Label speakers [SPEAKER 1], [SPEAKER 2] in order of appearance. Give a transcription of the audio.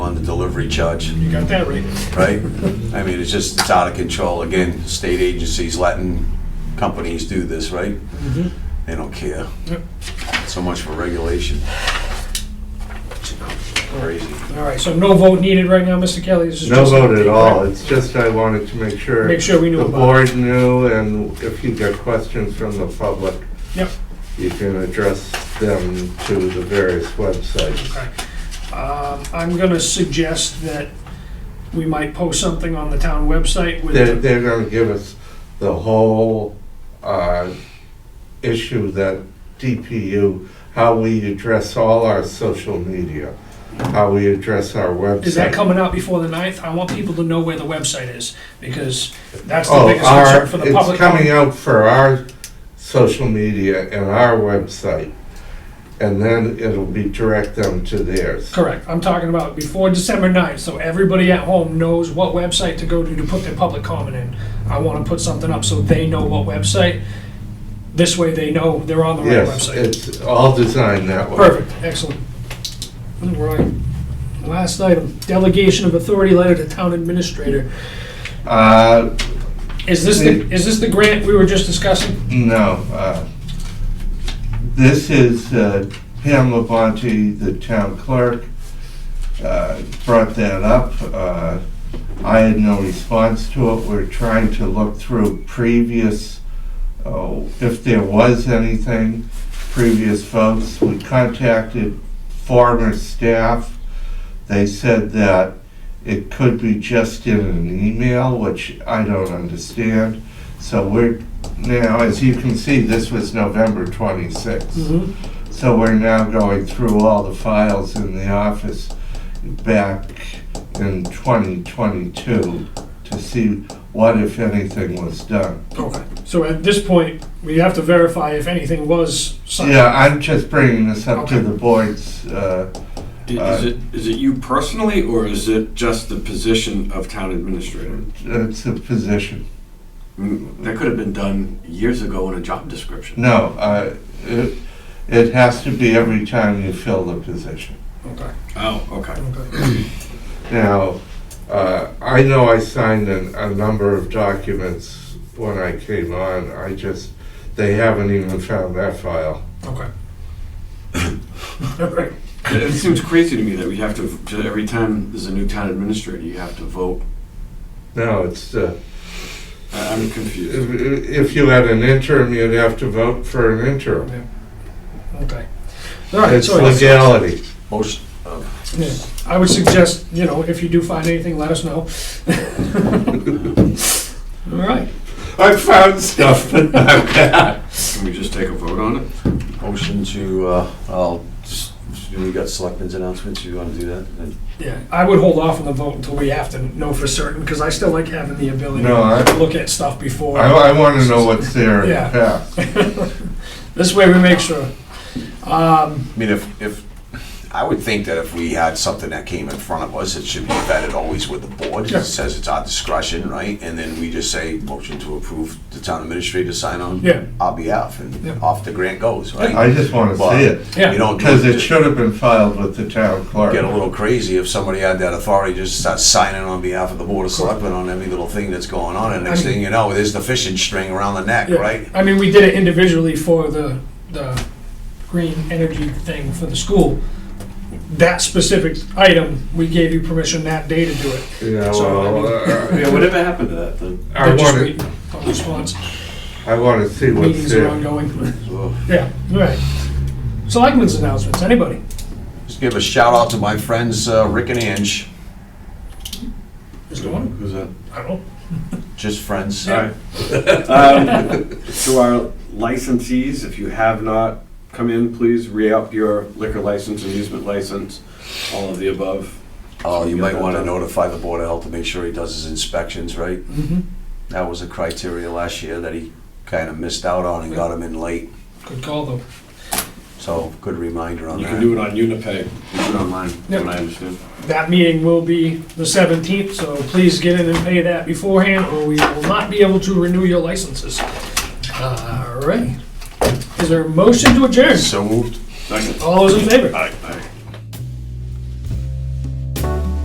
[SPEAKER 1] on the delivery charge,
[SPEAKER 2] You got that right.
[SPEAKER 1] right? I mean, it's just, it's out of control. Again, state agencies letting companies do this, right? They don't care.
[SPEAKER 2] Yep.
[SPEAKER 1] So much for regulation. Crazy.
[SPEAKER 2] All right, so no vote needed right now, Mr. Kelly? This is
[SPEAKER 3] No
[SPEAKER 2] just-
[SPEAKER 3] vote at all, it's just I wanted to make sure.
[SPEAKER 2] Make sure we knew
[SPEAKER 3] The
[SPEAKER 2] about
[SPEAKER 3] board knew, and if you get questions from the public.
[SPEAKER 2] Yep.
[SPEAKER 3] You can address them to the various websites.
[SPEAKER 2] Okay. Um, I'm gonna suggest that we might post something on the town website with,
[SPEAKER 3] They're,
[SPEAKER 2] the-
[SPEAKER 3] they're gonna give us the whole, uh, issue that DPU, how we address all our social media, how we address our website.
[SPEAKER 2] is that coming out before the 9th? I want people to know where the website is, because that's the
[SPEAKER 3] Oh,
[SPEAKER 2] biggest
[SPEAKER 3] our-
[SPEAKER 2] concern for the public.
[SPEAKER 3] It's coming out for our social media and our website, and then it'll be direct them to theirs.
[SPEAKER 2] Correct, I'm talking about before December 9th, so everybody at home knows what website to go to to put their public comment in. I wanna put something up so they know what website, this way they know they're on the right
[SPEAKER 3] Yes,
[SPEAKER 2] website.
[SPEAKER 3] it's all designed that way.
[SPEAKER 2] Perfect, excellent. All right. Last item, delegation of authority letter to town administrator.
[SPEAKER 3] Uh,
[SPEAKER 2] Is this the, is this the grant we were just discussing?
[SPEAKER 3] no, uh, this is uh, Pam Labonte, the town clerk, uh, brought that up. Uh, I had no response to it. We're trying to look through previous, oh, if there was anything, previous votes. We contacted former staff. They said that it could be just in an email, which I don't understand. So we're, now, as you can see, this was November 26th.
[SPEAKER 2] Mm-hmm.
[SPEAKER 3] So we're now going through all the files in the office back in 2022 to see what, if anything, was done.
[SPEAKER 2] Okay. So at this point, we have to verify if anything was signed.
[SPEAKER 3] Yeah, I'm just bringing this up to
[SPEAKER 2] Okay.
[SPEAKER 3] the board's, uh, Uh,
[SPEAKER 4] Is it, is it you personally, or is it just the position of town administrator?
[SPEAKER 3] it's a uh, position.
[SPEAKER 4] Mm, That could have been done years ago in a job description.
[SPEAKER 3] No, uh, it it has to be every time you fill the position.
[SPEAKER 2] Okay,
[SPEAKER 4] Oh, okay.
[SPEAKER 2] okay.
[SPEAKER 3] Now, uh, I know I signed a, a number of documents when I came on, I just, they haven't even found that file.
[SPEAKER 2] Okay. All right.
[SPEAKER 4] It it seems crazy to me that we have to, to- every time there's a new town administrator, you have to vote.
[SPEAKER 3] No, it's, uh,
[SPEAKER 4] I- I'm confused.
[SPEAKER 3] if if you had an interim, you'd have to vote for an interim.
[SPEAKER 2] Okay. All right,
[SPEAKER 3] It's
[SPEAKER 2] so
[SPEAKER 3] legality.
[SPEAKER 1] Most,
[SPEAKER 2] yeah, I would suggest, you know, if you do find anything, let us know. All right.
[SPEAKER 3] I found stuff, but not that.
[SPEAKER 4] Can we just take a vote on it?
[SPEAKER 1] motion to, uh, I'll, just- we got selectmen's announcements, you wanna do that? And-
[SPEAKER 2] Yeah, I would hold off on the vote until we have to know for certain, because I still like having the ability
[SPEAKER 3] No, I-
[SPEAKER 2] to look at stuff before.
[SPEAKER 3] I, I wanna know what's there in the
[SPEAKER 2] Yeah.
[SPEAKER 3] past.
[SPEAKER 2] This way we make sure. Um,
[SPEAKER 1] I mean, if, if, I would think that if we had something that came in front of us, it should be vetted always with the board.
[SPEAKER 2] Yeah.
[SPEAKER 1] It says it's our discretion, right? And then we just say, motion to approve the town administrator sign on.
[SPEAKER 2] Yeah.
[SPEAKER 1] Our behalf,
[SPEAKER 2] Yeah.
[SPEAKER 1] and off the grant goes, right?
[SPEAKER 3] I just wanna see it,
[SPEAKER 1] You
[SPEAKER 2] yeah,
[SPEAKER 1] don't do
[SPEAKER 3] because it
[SPEAKER 1] just
[SPEAKER 3] should have been filed with the town clerk.
[SPEAKER 1] Get a little crazy if somebody had that authority, just start signing on behalf of the board of selectmen on every little thing that's going on, and next
[SPEAKER 2] I mean-
[SPEAKER 1] thing you know, there's the fishing string around the neck,
[SPEAKER 2] yeah.
[SPEAKER 1] right?
[SPEAKER 2] I mean, we did it individually for the, the green energy thing for the school. That specific item, we gave you permission that day to do it.
[SPEAKER 3] Yeah,
[SPEAKER 2] So, I
[SPEAKER 3] well, uh,
[SPEAKER 4] Yeah, whatever happened to that then?
[SPEAKER 3] I
[SPEAKER 2] They're just
[SPEAKER 3] wanna,
[SPEAKER 2] waiting on Response,
[SPEAKER 3] I wanna see what's
[SPEAKER 2] meetings are
[SPEAKER 3] there.
[SPEAKER 2] ongoing.
[SPEAKER 1] So,
[SPEAKER 2] Yeah, all right. Selectmen's announcements, anybody?
[SPEAKER 1] Just give a shout out to my friends uh, Rick and Ange,
[SPEAKER 2] Just one?
[SPEAKER 4] Who's that?
[SPEAKER 2] I don't know.
[SPEAKER 1] just friends.
[SPEAKER 2] Yeah.
[SPEAKER 4] Um, To our licensees, if you have not come in, please re-up your liquor license, amusement license, all of the above.
[SPEAKER 1] Oh, you
[SPEAKER 4] Yeah,
[SPEAKER 1] might
[SPEAKER 4] that-
[SPEAKER 1] want to
[SPEAKER 4] that-
[SPEAKER 1] notify the Board of Health to make sure he does his inspections, right?
[SPEAKER 2] Mhm.
[SPEAKER 1] That was a criteria last year that he kind of missed out on and got him in late,
[SPEAKER 2] Good call, though.
[SPEAKER 1] so good reminder on
[SPEAKER 4] You can do
[SPEAKER 1] that.
[SPEAKER 4] it on Unipay, you can do it online,
[SPEAKER 2] Yep.
[SPEAKER 4] from what I understand.
[SPEAKER 2] That meeting will be the 17th, so please get in and pay that beforehand, or we will not be able to renew your licenses. All right. Is there a motion to adjourn?
[SPEAKER 1] So moved.
[SPEAKER 4] Second.
[SPEAKER 2] All those in favor?
[SPEAKER 4] Aye. Aye.